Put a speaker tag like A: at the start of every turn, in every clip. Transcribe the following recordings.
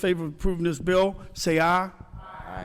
A: favor of approving this bill, say aye.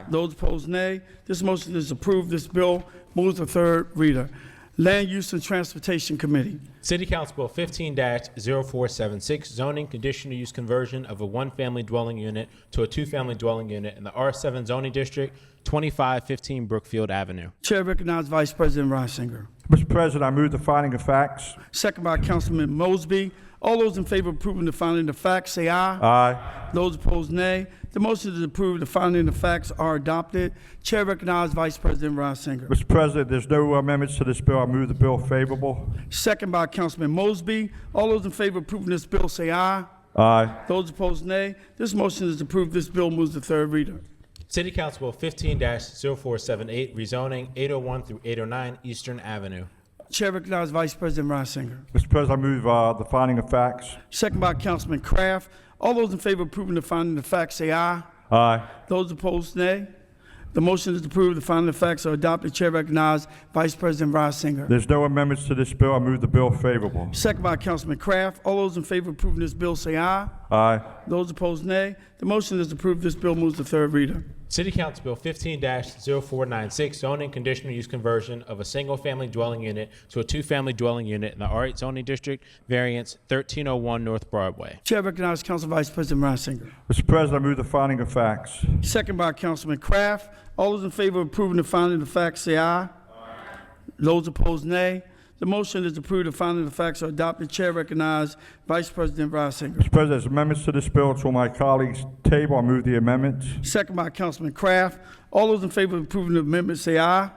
A: Those opposed, nay. This motion is approved. This bill moves to third reader. Land Use and Transportation Committee.
B: City Council Bill fifteen 476 zoning conditional use conversion of a one-family dwelling unit to a two-family dwelling unit in the R seven zoning district, twenty-five fifteen Brookfield Avenue.
A: Chair recognizes Vice President Reisinger.
C: Mr. President, I move the finding of facts.
A: Second by Councilman Mosby. All those in favor of approving the finding of facts, say aye.
C: Aye.
A: Those opposed, nay. The motion is approved. The finding of facts are adopted. Chair recognizes Vice President Reisinger.
C: Mr. President, there's no amendments to this bill. I move the bill favorable.
A: Second by Councilman Mosby. All those in favor of approving this bill, say aye.
C: Aye.
A: Those opposed, nay. This motion is approved. This bill moves to third reader.
B: City Council Bill fifteen 478 rezoning eight oh one through eight oh nine Eastern Avenue.
A: Chair recognizes Vice President Reisinger.
C: Mr. President, I move uh, the finding of facts.
A: Second by Councilman Kraft. All those in favor of approving the finding of facts, say aye.
C: Aye.
A: Those opposed, nay. The motion is approved. The finding of facts are adopted. Chair recognizes Vice President Reisinger.
C: There's no amendments to this bill. I move the bill favorable.
A: Second by Councilman Kraft. All those in favor of approving this bill, say aye.
C: Aye.
A: Those opposed, nay. The motion is approved. This bill moves to third reader.
B: City Council Bill fifteen 496 zoning conditional use conversion of a single-family dwelling unit to a two-family dwelling unit in the R eight zoning district, variance thirteen oh one North Broadway.
A: Chair recognizes Council Vice President Reisinger.
C: Mr. President, I move the finding of facts.
A: Second by Councilman Kraft. All those in favor of approving the finding of facts, say aye. Those opposed, nay. The motion is approved. The finding of facts are adopted. Chair recognizes Vice President Reisinger.
C: Mr. President, there's amendments to this bill. It's on my colleague's table. I move the amendments.
A: Second by Councilman Kraft. All those in favor of approving the amendment, say aye.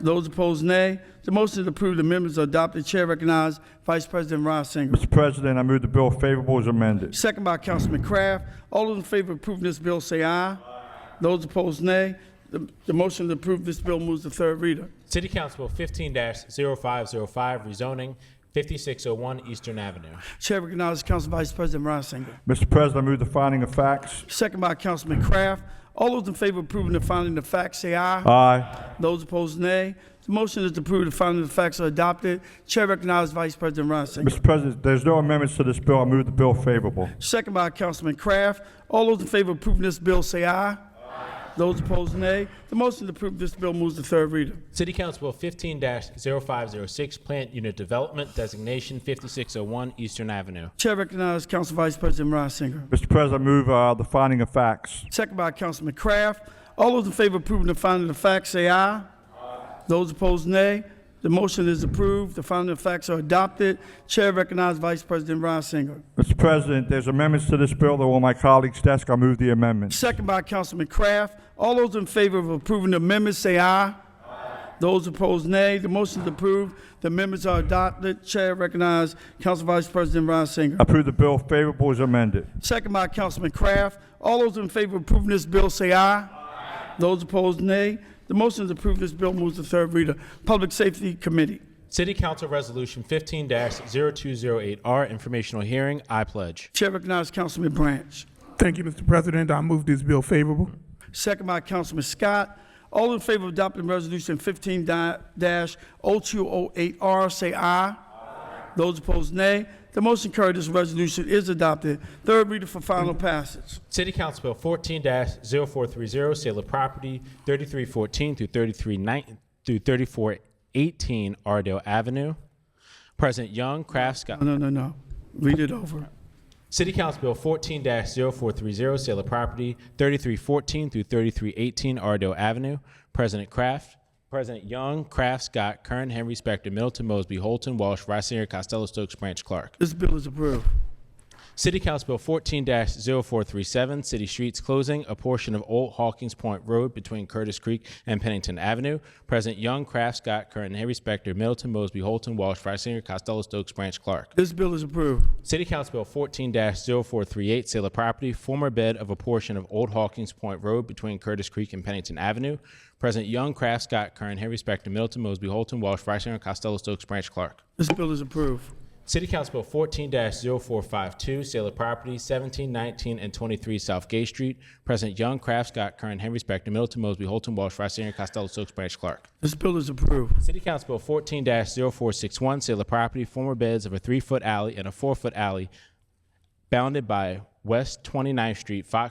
A: Those opposed, nay. The motion is approved. The amendments are adopted. Chair recognizes Vice President Reisinger.
C: Mr. President, I move the bill favorable as amended.
A: Second by Councilman Kraft. All those in favor of approving this bill, say aye. Those opposed, nay. The the motion is approved. This bill moves to third reader.
B: City Council Bill fifteen 505 rezoning fifty-six oh one Eastern Avenue.
A: Chair recognizes Council Vice President Reisinger.
C: Mr. President, I move the finding of facts.
A: Second by Councilman Kraft. All those in favor of approving the finding of facts, say aye.
C: Aye.
A: Those opposed, nay. The motion is approved. The finding of facts are adopted. Chair recognizes Vice President Reisinger.
C: Mr. President, there's no amendments to this bill. I move the bill favorable.
A: Second by Councilman Kraft. All those in favor of approving this bill, say aye. Those opposed, nay. The motion is approved. This bill moves to third reader.
B: City Council Bill fifteen 506 Plant Unit Development Designation fifty-six oh one Eastern Avenue.
A: Chair recognizes Council Vice President Reisinger.
C: Mr. President, I move uh, the finding of facts.
A: Second by Councilman Kraft. All those in favor of approving the finding of facts, say aye. Those opposed, nay. The motion is approved. The finding of facts are adopted. Chair recognizes Vice President Reisinger.
C: Mr. President, there's amendments to this bill. They're on my colleague's desk. I move the amendments.
A: Second by Councilman Kraft. All those in favor of approving the amendment, say aye. Those opposed, nay. The motion is approved. The amendments are adopted. Chair recognizes Council Vice President Reisinger.
C: Approve the bill favorable as amended.
A: Second by Councilman Kraft. All those in favor of approving this bill, say aye. Those opposed, nay. The motion is approved. This bill moves to third reader. Public Safety Committee.
B: City Council Resolution fifteen 208 R Informational Hearing, I pledge.
A: Chair recognizes Councilman Branch.
D: Thank you, Mr. President. I move this bill favorable.
A: Second by Councilman Scott. All in favor of adopting Resolution fifteen dash oh two oh eight R, say aye. Those opposed, nay. The motion carried, this resolution is adopted. Third reader for final passage.
B: City Council Bill fourteen 430 Sale of Property thirty-three fourteen through thirty-three nine through thirty-four eighteen Ardell Avenue. President Young, Kraft, Scott.
A: No, no, no, no. Read it over.
B: City Council Bill fourteen 430 sale of property, thirty-three fourteen through thirty-three eighteen Ardell Avenue. President Kraft, President Young, Kraft, Scott, Kern, Henry, Specter, Middleton, Mosby, Holton, Walsh, Reisinger, Costello, Stokes, Branch, Clark.
A: This bill is approved.
B: City Council Bill fourteen 437 city streets closing a portion of Old Hawkins Point Road between Curtis Creek and Pennington Avenue. President Young, Kraft, Scott, Kern, Henry, Specter, Middleton, Mosby, Holton, Walsh, Reisinger, Costello, Stokes, Branch, Clark.
A: This bill is approved.
B: City Council Bill fourteen 438 sale of property, former bed of a portion of Old Hawkins Point Road between Curtis Creek and Pennington Avenue. President Young, Kraft, Scott, Kern, Henry, Specter, Middleton, Mosby, Holton, Walsh, Reisinger, Costello, Stokes, Branch, Clark.
A: This bill is approved.
B: City Council Bill fourteen 452 sale of property, seventeen, nineteen, and twenty-three South Gay Street. President Young, Kraft, Scott, Kern, Henry, Specter, Middleton, Mosby, Holton, Walsh, Reisinger, Costello, Stokes, Branch, Clark.
A: This bill is approved.
B: City Council Bill fourteen 461 sale of property, former beds of a three-foot alley and a four-foot alley bounded by West 29th Street, Fox